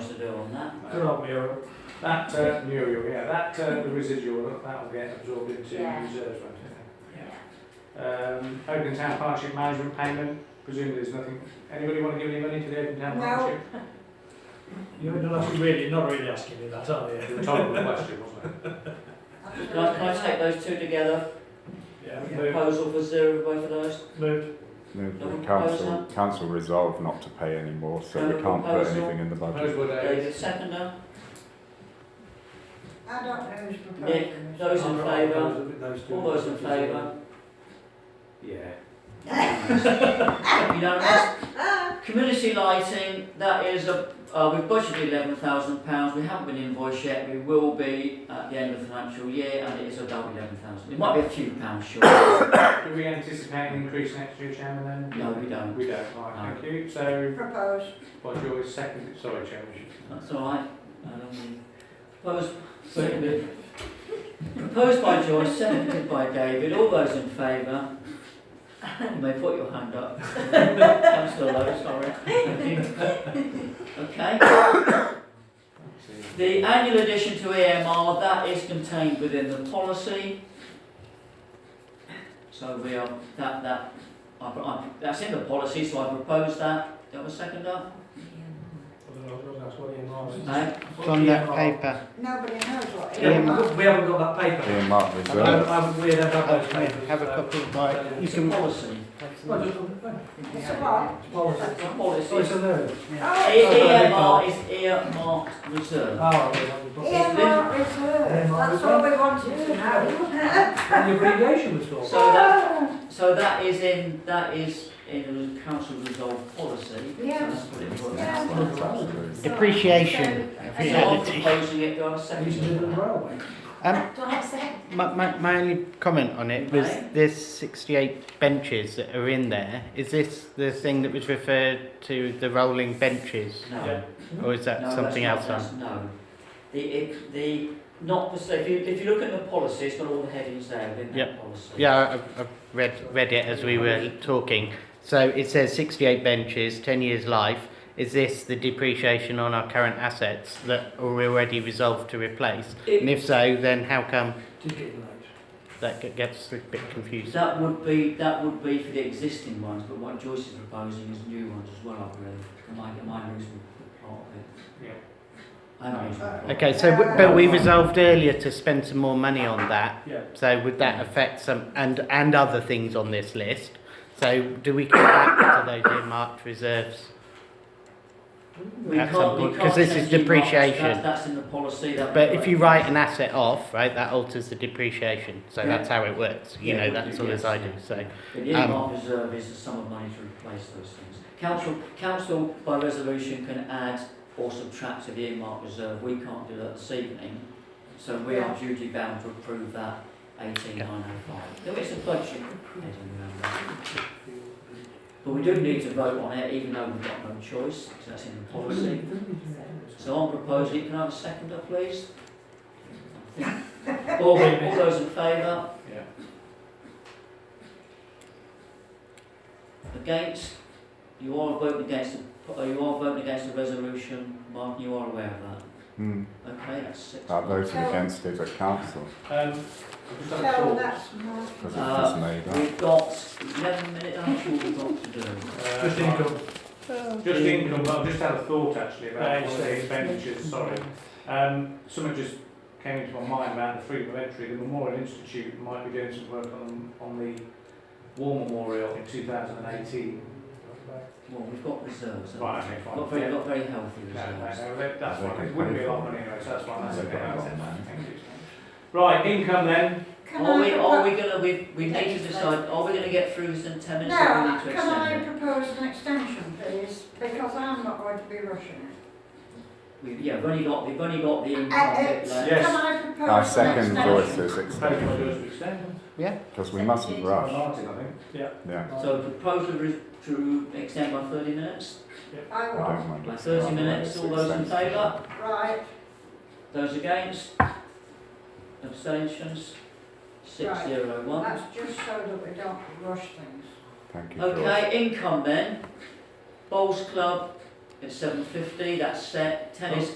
do on that. Good old mural. That, uh, mural, yeah, that, uh, the residual, that'll get absorbed into Yeah. reserves, won't it? Yeah. Um, Open Town Partnership Management Payment, presumably there's nothing, anybody want to give any money to the Open Town No. Partnership? You're not actually really, not really asking me that, are you? It was a rhetorical question, wasn't it? Can I, can I take those two together? Yeah. Move, Proposal for zero by for those. move. Move that Don't the council, propose council resolve not to pay any more, so Don't we can't put propose it. anything in the budget. Those were days. David, seconder. I don't know who's proposing Nick, this. those in favour? favour? All those in favour? Yeah. Unanimous. Community lighting, that is, a- uh, we've budgeted eleven thousand pounds, we haven't been invoiced yet, we will be at the end of the financial year, and it is about eleven thousand. It might be a few pounds short, no, Do we anticipate an increase next year, Chairman, then? we don't, We don't, right, thank you. So, Propose. what's your second, sorry, Chairman. that's all right. I don't think- Proposed, seconded. Proposed by Joyce, seconded by David, all those in favour? You may put your hand up. I'm still low, sorry. Okay. The annual addition to EMR, that is contained within the policy. So we are, that, that, I, I, that's in the policy, so I propose that. Do you have a second up? No? From that paper. Nobody knows what Yeah. it is. We haven't got that paper. Earmark reserve. we don't have Have have a copy of my, you It's a can, policy. It's a what? It's a Oh, it's policy. a there. Oh, E- EMR is earmarked reserve. Oh, earmark reserve, that's all we wanted to know. and your abbreviation was So that, so that is in, that is in the council resolved policy. So Yes. that's what it was. Yeah. That's what it was. depreciation, So I'm reality. proposing it, do I have a second? railway. Um, my, my, my only comment on it was Right. there's 68 benches that are in there. Is this the thing that was referred to the rolling benches? No. Yeah. Or is that No, something that's not- else on? that's- No. The, it, the, not the, so if you, if you look at the policy, it's got all the headings there within that Yep. policy. Yeah, I- I've read, read it as we were talking. So it says 68 benches, 10 years life. Is this the depreciation on our current assets that are already resolved to replace? And It, if so, then how come that g- gets a bit confusing? that would be, that would be for the existing ones, but what Joyce is proposing is new ones as well, I believe. Am I, am I losing part of it? Yeah. I'm losing part. Okay, so w- but we resolved earlier to spend some more money on that. Yeah. So would that affect some and and other things on this list? So do we come back to those earmarked reserves? We At can't, some we point, can't. 'cause this is change it, Mark, that's- depreciation. That's in the policy, that. But if you write an asset off, right, that alters the depreciation. So that's how it works. You Yeah, know, that's all as I do. So The earmark reserve is the sum of money to replace those things. Council, council by resolution can add or subtract to the earmark reserve, we can't do that this evening. So we are duty bound to approve that eighteen nine oh five. There is a budget heading around that. But we do need to vote on it, even though we've got no choice, because that's in the policy. So I'm proposing, can I have a seconder, please? All, all those in favour? Yeah. Against? You are voting against, the- uh, you are voting against the resolution, Mark, you are aware of that. Hmm, Okay, that's six. I voted against it at council, Um, So that's my. because it Uh, was made up. We've got eleven minutes, I'm sure we've got to do. just income. Uh, Just income, but I've just had a thought actually about Right. one of the expenditures, sorry. Um, something just came into my mind about the freedom of entry. The Memorial Institute might be doing some work on, on the war memorial in 2018. Well, we've got reserves, haven't Right, okay, we? fine. Got very, Yeah. got very healthy No, no, reserves. no, that- that's fine. It wouldn't be a lot of money anyway, so that's fine. That's They've okay. got a I'll lot take of that. money. Thank you. Right, income then. Can Are I we, are propo- we gonna, we, we need to decide, are we gonna get through this in ten minutes or we No, need to can I extend it? propose an extension, please? Because I'm not going to be rushing it. We, yeah, we've only got, we've only got the Uh, income bit it's- left. Yes. Can I propose? I an second extension? Joyce's Proposal by Joyce extension, to extend. because we mustn't rush, Martin, I think. yeah. So proposal re- to extend by thirty minutes, I I was, don't mind by it. thirty minutes, all those in favour? right, Those against? Abstentions? Six Right. zero one. that's just so that we don't rush things. Thank you, George. Okay, income then. Bowls Club at seven fifty, that's set. Tennis